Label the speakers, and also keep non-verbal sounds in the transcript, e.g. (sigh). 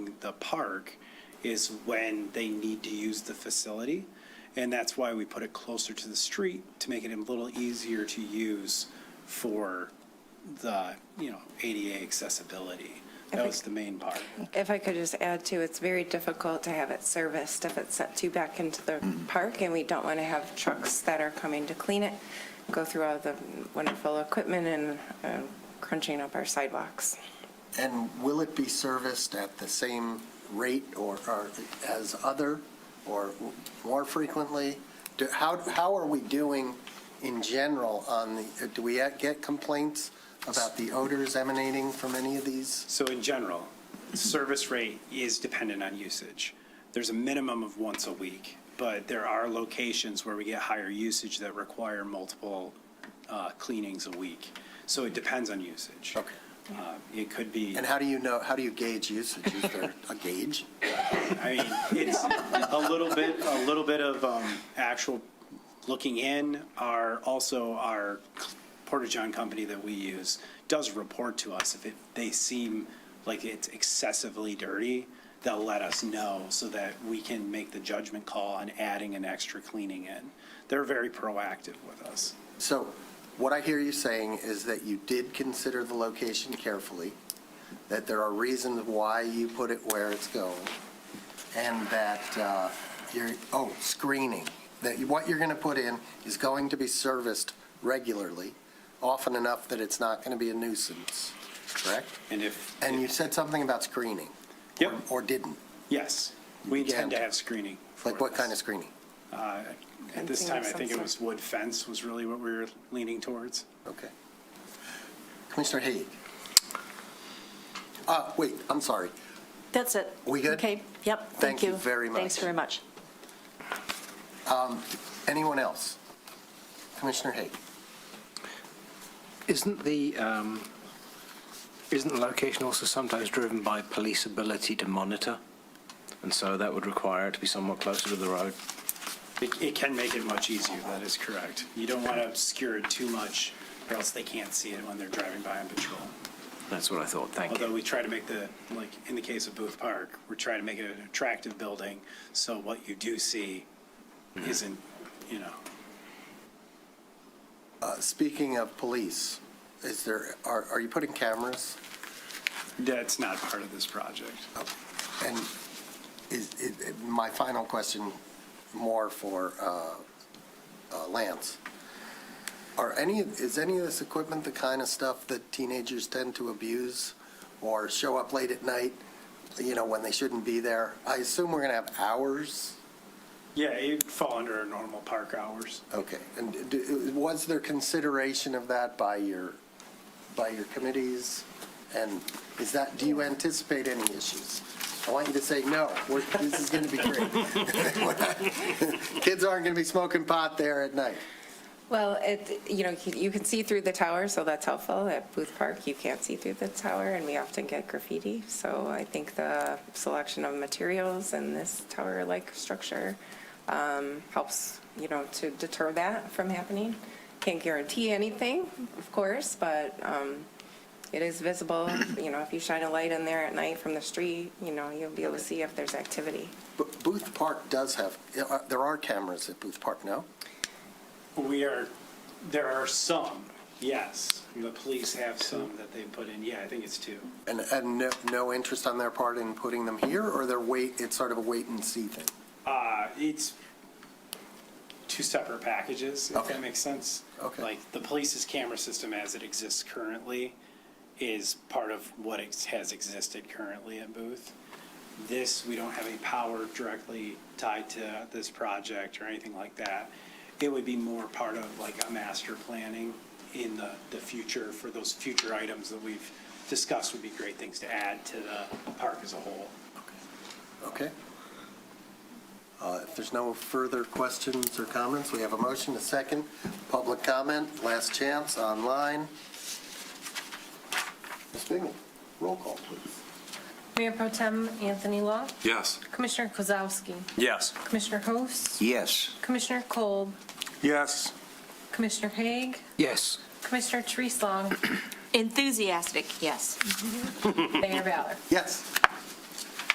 Speaker 1: the park is when they need to use the facility. And that's why we put it closer to the street to make it a little easier to use for the, you know, ADA accessibility. That was the main part.
Speaker 2: If I could just add too, it's very difficult to have it serviced if it's set too back into the
Speaker 3: Mm-hmm.
Speaker 2: park, and we don't want to have trucks that are coming to clean it, go through all the wonderful equipment and uh, crunching up our sidewalks.
Speaker 3: And will it be serviced at the same rate or, or as other, or more frequently? Do- How, how are we doing in general on the, do we get complaints about the odors emanating from any of these?
Speaker 1: So in general, service rate is dependent on usage. There's a minimum of once a week, but there are locations where we get higher usage that require multiple uh, cleanings a week. So it depends on usage.
Speaker 3: Okay.
Speaker 1: Uh, It could be,
Speaker 3: And how do you know, how do you gauge usage? Is there a gauge?
Speaker 1: I mean, it's a little bit, a little bit of um, actual looking in. Our, also our Portageon company that we use does report to us if it, they seem like it's excessively dirty, they'll let us know so that we can make the judgment call on adding an extra cleaning in. They're very proactive with us.
Speaker 3: So what I hear you saying is that you did consider the location carefully, that there are reasons why you put it where it's going, and that uh, you're, oh, screening, that you- what you're going to put in is going to be serviced regularly, often enough that it's not going to be a nuisance, correct?
Speaker 1: And if,
Speaker 3: And you said something about screening.
Speaker 1: Yep.
Speaker 3: Or didn't.
Speaker 1: yes, we intend to
Speaker 3: Yeah.
Speaker 1: have screening. for
Speaker 3: Like what
Speaker 1: this.
Speaker 3: kind of screening?
Speaker 1: Uh, At this
Speaker 2: Fencing
Speaker 1: time,
Speaker 2: of
Speaker 1: I
Speaker 2: some
Speaker 1: think it
Speaker 2: sort.
Speaker 1: was wood fence was really what we were leaning towards.
Speaker 3: Okay. Commissioner Haig? Uh, wait, I'm sorry.
Speaker 4: That's it.
Speaker 3: We good?
Speaker 4: Okay, yep,
Speaker 3: Thank
Speaker 4: thank you.
Speaker 3: you very much.
Speaker 4: Thanks very much.
Speaker 3: Anyone else? Commissioner Haig?
Speaker 5: Isn't the, um, isn't the location also sometimes driven by police ability to monitor? And so that would require it to be somewhat closer to the road?
Speaker 1: It, it can make it much easier, that is correct. You don't want to obscure it too much, or else they can't see it when they're driving by on patrol.
Speaker 5: That's what I thought, thank
Speaker 1: Although
Speaker 5: you.
Speaker 1: we try to make the, like, in the case of Booth Park, we're trying to make it an attractive building, so what you do see isn't, you know,
Speaker 3: Uh, Speaking of police, is there, are, are you putting cameras?
Speaker 1: that's not part of this project.
Speaker 3: And is, is- my final question, more for uh, uh, Lance. Are any, is any of this equipment the kind of stuff that teenagers tend to abuse or show up late at night, you know, when they shouldn't be there? I assume we're going to have hours?
Speaker 1: Yeah, it'd fall under our normal park hours.
Speaker 3: Okay, and d- was there consideration of that by your, by your committees? And is that, do you anticipate any issues? I want you to say, no, we're- this is going to be great. (laughs) Kids aren't going to be smoking pot there at night.
Speaker 2: Well, it, you know, you can see through the tower, so that's helpful. At Booth Park, you can't see through the tower, and we often get graffiti. So I think the selection of materials and this tower-like structure um, helps, you know, to deter that from happening. Can't guarantee anything, of course, but um, it is visible. You know, if you shine a light in there at night from the street, you know, you'll be able to see if there's activity.
Speaker 3: But Booth Park does have, uh, there are cameras at Booth Park, no?
Speaker 1: We are, there are some, yes. The police have some that they put in, yeah, I think it's two.
Speaker 3: And, and no- no interest on their part in putting them here, or they're wait, it's sort of a wait and see thing?
Speaker 1: Uh, it's two separate packages, if
Speaker 3: Okay.
Speaker 1: that makes sense.
Speaker 3: Okay.
Speaker 1: Like, the police's camera system as it exists currently is part of what ex- has existed currently at Booth. This, we don't have any power directly tied to this project or anything like that. It would be more part of like a master planning in the, the future for those future items that we've discussed would be great things to add to the park as a whole.
Speaker 3: Okay. Uh, If there's no further questions or comments, we have a motion, a second, public comment, last chance, online. Ms. Bingham, roll call, please.
Speaker 6: Mayor Pro Tem Anthony Law,
Speaker 7: Yes.
Speaker 6: Commissioner Kozowski,
Speaker 7: Yes.
Speaker 6: Commissioner Host,
Speaker 7: Yes.
Speaker 6: Commissioner Kolb,
Speaker 7: Yes.
Speaker 6: Commissioner Haig,
Speaker 5: Yes,
Speaker 6: Commissioner Treeslong,
Speaker 4: Enthusiastic, yes.
Speaker 6: (coughs) Mayor Ballard.
Speaker 3: Yes.